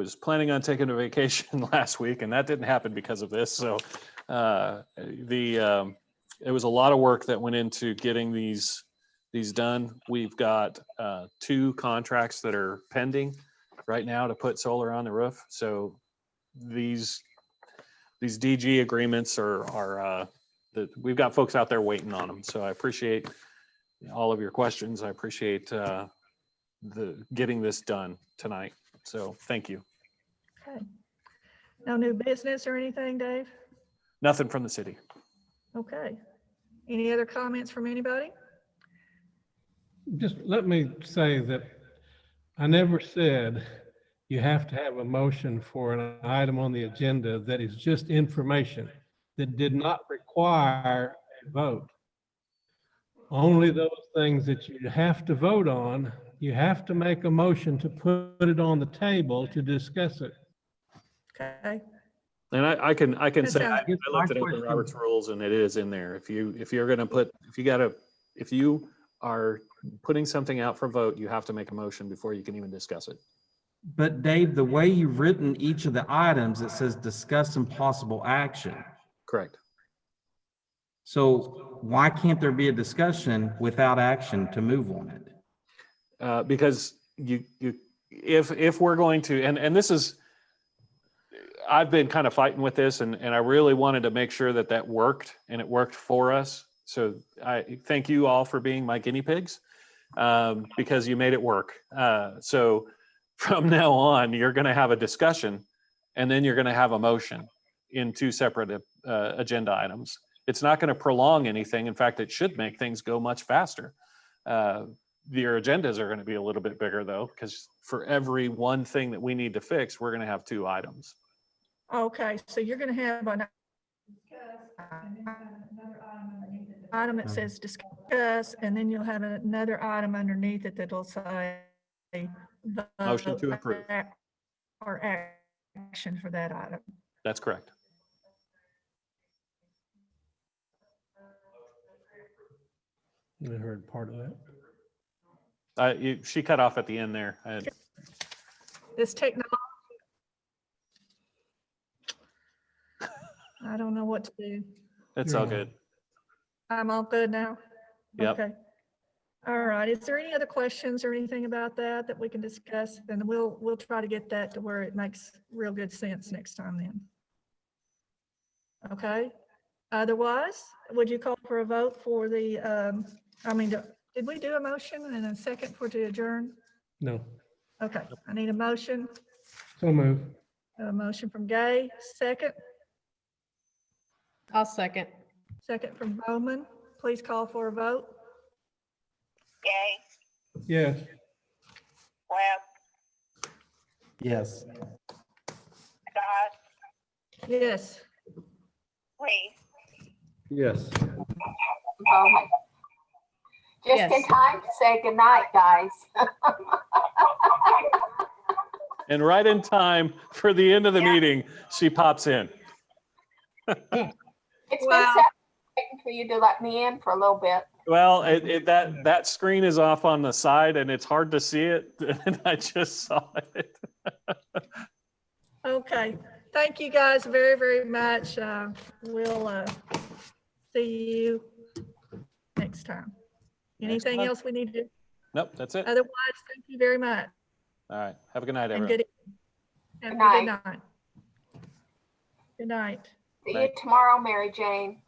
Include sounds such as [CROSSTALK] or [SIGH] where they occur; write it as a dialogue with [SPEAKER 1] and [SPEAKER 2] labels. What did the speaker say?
[SPEAKER 1] was planning on taking a vacation [LAUGHS] last week and that didn't happen because of this. So uh, the, um, it was a lot of work that went into getting these, these done. We've got uh, two contracts that are pending right now to put solar on the roof. So these, these DG agreements are, are, uh, that, we've got folks out there waiting on them. So I appreciate all of your questions. I appreciate uh, the, getting this done tonight. So thank you.
[SPEAKER 2] Okay. No new business or anything, Dave?
[SPEAKER 1] Nothing from the city.
[SPEAKER 2] Okay. Any other comments from anybody?
[SPEAKER 3] Just let me say that I never said you have to have a motion for an item on the agenda that is just information, that did not require a vote. Only those things that you have to vote on, you have to make a motion to put it on the table to discuss it.
[SPEAKER 2] Okay,
[SPEAKER 1] And I, I can, I can
[SPEAKER 2] Good
[SPEAKER 1] say,
[SPEAKER 2] job.
[SPEAKER 1] I I looked at Open Roberts rules and it is in there. If you, if you're gonna put, if you gotta, if you are putting something out for vote, you have to make a motion before you can even discuss it.
[SPEAKER 4] But Dave, the way you've written each of the items, it says discuss and possible action.
[SPEAKER 1] Correct.
[SPEAKER 4] So why can't there be a discussion without action to move on it?
[SPEAKER 1] Uh, because you, you, if, if we're going to, and, and this is, I've been kind of fighting with this and, and I really wanted to make sure that that worked and it worked for us. So I thank you all for being my guinea pigs um, because you made it work. Uh, so [LAUGHS] from now on, you're going to have a discussion and then you're going to have a motion in two separate uh, agenda items. It's not going to prolong anything. In fact, it should make things go much faster. Uh, your agendas are going to be a little bit bigger though, because for every one thing that we need to fix, we're going to have two items.
[SPEAKER 2] okay, so you're gonna have an item that says discuss, and then you'll have another item underneath it that'll say
[SPEAKER 1] Motion to
[SPEAKER 2] vote,
[SPEAKER 1] approve.
[SPEAKER 2] act, Or action for that item.
[SPEAKER 1] That's correct.
[SPEAKER 3] I heard part of that.
[SPEAKER 1] Uh, you, she cut off at the end there. I-
[SPEAKER 2] This technology. I don't know what to do.
[SPEAKER 1] It's all
[SPEAKER 3] Yeah.
[SPEAKER 1] good.
[SPEAKER 2] I'm all good now?
[SPEAKER 1] Yep.
[SPEAKER 2] Okay. All right. Is there any other questions or anything about that that we can discuss? And we'll, we'll try to get that to where it makes real good sense next time then. Okay. Otherwise, would you call for a vote for the, um, I mean, did we do a motion and a second for to adjourn?
[SPEAKER 3] No,
[SPEAKER 2] Okay, I need a motion,
[SPEAKER 3] so move.
[SPEAKER 2] a motion from Gay, second,
[SPEAKER 5] I'll second.
[SPEAKER 2] second from Bowman. Please call for a vote.
[SPEAKER 6] Gay,
[SPEAKER 3] Yes.
[SPEAKER 6] Webb,
[SPEAKER 4] Yes.
[SPEAKER 6] Scott,
[SPEAKER 2] Yes.
[SPEAKER 6] Reese.
[SPEAKER 3] Yes.
[SPEAKER 7] Bowman. Oh. Just in
[SPEAKER 5] Yes.
[SPEAKER 7] time to say goodnight, guys.
[SPEAKER 1] And right in time for the end of the meeting, she pops in.
[SPEAKER 7] It's been
[SPEAKER 2] Wow.
[SPEAKER 7] seven, waiting for you to let me in for a little bit.
[SPEAKER 1] Well, it, it, that, that screen is off on the side and it's hard to see it. [LAUGHS] And I just saw it.
[SPEAKER 2] Okay, thank you guys very, very much. Uh, We'll uh, see you next time.
[SPEAKER 1] Next
[SPEAKER 2] Anything
[SPEAKER 1] month.
[SPEAKER 2] else we need to, do?
[SPEAKER 1] Nope, that's it.
[SPEAKER 2] otherwise, thank you very much.
[SPEAKER 1] All right. Have a good night,
[SPEAKER 2] Uh, and
[SPEAKER 1] everyone.
[SPEAKER 2] good evening. Have a
[SPEAKER 7] Good
[SPEAKER 2] Good night. Good night.
[SPEAKER 7] See you
[SPEAKER 1] Thank-
[SPEAKER 7] tomorrow, Mary Jane.